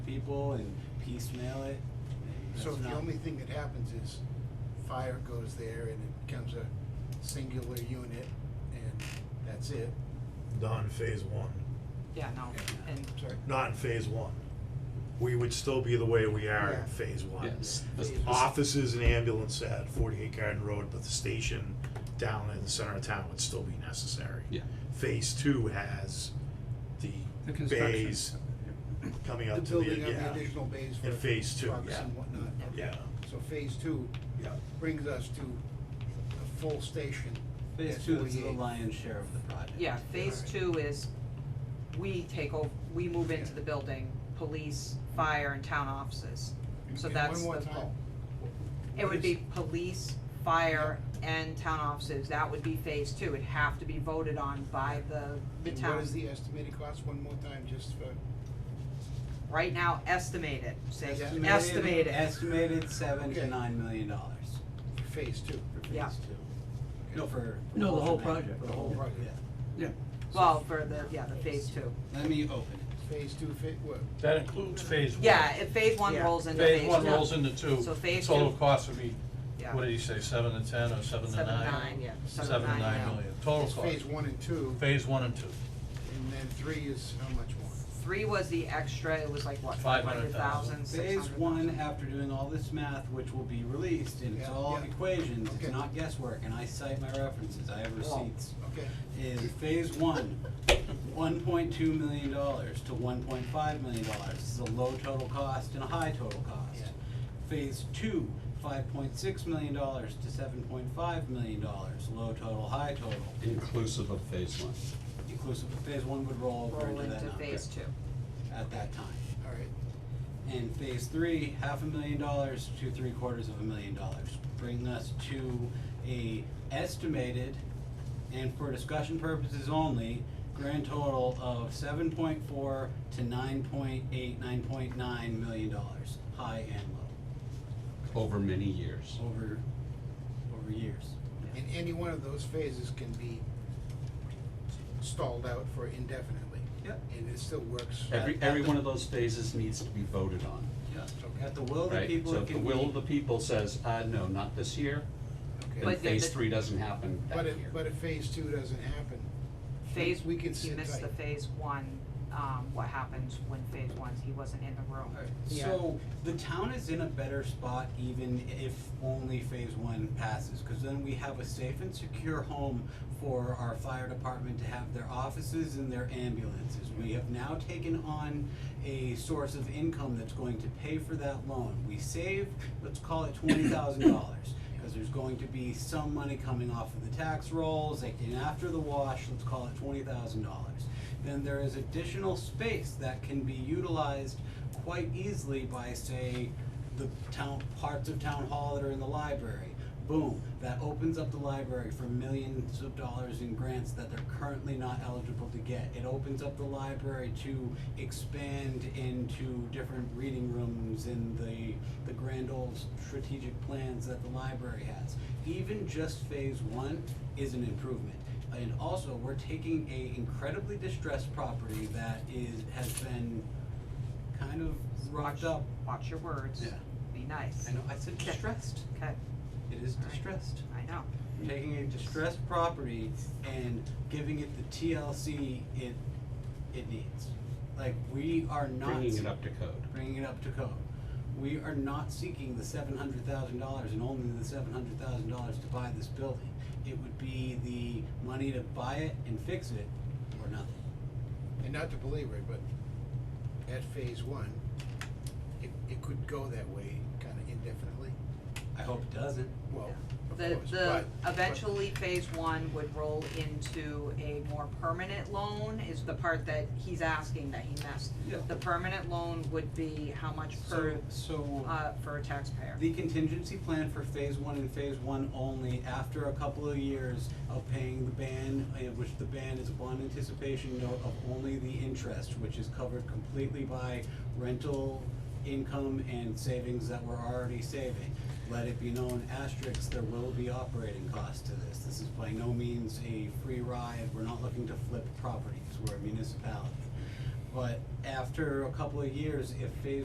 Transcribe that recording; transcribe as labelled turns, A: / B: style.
A: people and piecemeal it.
B: So
A: That's
B: if the
A: not-
B: only thing that happens is fire goes there and it becomes a singular unit and that's it.
C: Not in phase one,
D: Yeah, no,
B: Yeah.
D: and
B: Sorry.
C: not in phase one. We would still be the way we are
B: Yeah.
C: in phase one.
E: Yes, the- the-
C: Offices and ambulance at forty-eight Garden Road, but the station down in the center of town would still be necessary.
E: Yeah.
C: Phase two has
F: The
C: the
F: construction.
C: bays coming
B: The
C: up to the, yeah.
B: building of the additional bays for
C: In phase two,
B: trucks
E: yeah.
B: and whatnot.
C: Yeah,
B: So phase two
C: yeah.
B: brings us to a full station.
A: Phase
B: at
A: two is the
B: 48.
A: lion's share of the project.
D: yeah, phase two is we take over, we move into
B: Yeah.
D: the building, police, fire and town offices. So
B: And
D: that's the
B: One more
D: full.
B: time.
D: It would be police, fire and town offices, that would be phase two, it'd have to be voted on by the the
B: And
D: town.
B: What is the e-, estimated cost, one more time, just for,
D: Right now, estimate it, say,
B: Estimated.
D: estimate it,
A: Estimated seven to
B: Okay.
A: nine million dollars
B: for phase two?
A: for
D: Yeah.
A: phase two. No, for. for
F: No, the whole
A: thing,
F: project.
A: For the whole project.
F: Yeah,
D: well, for the, yeah, the phase two.
A: Let me open it.
B: Phase two, fa- what,
G: That includes phase one.
D: Yeah, if phase one
B: Yeah.
D: rolls into phase two.
G: Phase one rolls into two.
D: So phase
G: Total
D: two-
G: cost would be,
D: Yeah.
G: what did you say, seven to ten or seven to nine?
D: Seven to nine, yeah, seven to
G: Seven to
D: nine,
G: nine
D: yeah.
G: million, total
B: it's
G: cost.
B: phase one and two,
G: Phase one and two,
B: and then three is how much more?
D: Three was the extra, it was like what, five hundred
G: 500,000.
D: thousand, six hundred
A: Phase
D: thousand?
A: one, after doing all this math, which will be released, and it's
B: Yeah,
A: all
B: yeah.
A: equations, it's
B: Okay.
A: not guesswork, and I cite my references, I have receipts.
B: Okay,
A: Is phase one, one point two million dollars to one point five million dollars, this is a low total cost and a high total cost.
B: Yeah.
A: Phase two, five point six million dollars to seven point five million dollars, low total, high total,
E: Inclusive of phase one.
A: inclusive of phase one would roll over
D: Roll
A: into that
D: into
A: number
D: phase two.
A: at that time.
B: all right.
A: And phase three, half a million dollars to three quarters of a million dollars, bringing us to a estimated, and for discussion purposes only, grand total of seven point four to nine point eight, nine point nine million dollars, high and low,
E: Over many years.
A: over, over years.
B: And any one of those phases can be stalled out for indefinitely.
A: Yep.
B: And it still works.
E: Every,
A: At- at
E: every
A: the-
E: one of those phases needs to be voted on,
A: Yeah. At the will of the
E: right?
A: people,
E: So
A: it
E: if the
A: can
E: will of
A: be,
E: the people says, uh, no, not this year,
B: Okay.
E: then
D: But then
E: phase
D: the-
E: three doesn't happen that
B: But
E: year.
B: if, but if phase two doesn't happen,
D: Phase,
B: we
D: he
B: can sit
D: missed the
B: tight.
D: phase one, um, what happens when phase one's, he wasn't in the room.
A: Alright, so the town is in a better spot even if only phase one passes, cause then we have a safe and secure home for our fire department to have their offices and their ambulances. We have now taken on a source of income that's going to pay for that loan. We save, let's call it twenty thousand dollars, cause there's going to be some money coming off of the tax rolls, like, and after the wash, let's call it twenty thousand dollars then there is additional space that can be utilized quite easily by, say, the town, parts of town hall that are in the library. Boom, that opens up the library for millions of dollars in grants that they're currently not eligible to get. It opens up the library to expand into different reading rooms in the, the grand old strategic plans that the library has. Even just phase one is an improvement. And also, we're taking a incredibly distressed property that is, has been kind of rocked
D: Watch-
A: up.
D: Watch your words,
A: Yeah.
D: be nice.
A: I know, I said distressed,
D: Okay,
A: it is
D: All right.
A: distressed.
D: I know,
A: We're Taking a distressed property and giving it the TLC it, it needs. Like, we are not.
E: Bringing it up to code.
A: bringing it up to code. We are not seeking the seven hundred thousand dollars and only the seven hundred thousand dollars to buy this building. It would be the money to buy it and fix it or nothing.
B: and not to belabor it, but at phase one, it, it could go that way kind of indefinitely.
A: I hope it doesn't.
B: Well, of
D: the,
B: course,
D: the,
B: but- but-
D: eventually, phase one would roll into a more permanent loan, is the part that he's asking that he missed.
A: Yeah.
D: The permanent loan would be how much per,
A: So, so
D: uh, for a taxpayer?
A: the contingency plan for phase one and phase one only, after a couple of years of paying the ban, uh, which the ban is a bond anticipation note of only the interest, which is covered completely by rental income and savings that we're already saving. Let it be known, asterisks, there will be operating costs to this. This is by no means a free ride. We're not looking to flip properties. We're a municipality. But after a couple of years, if phase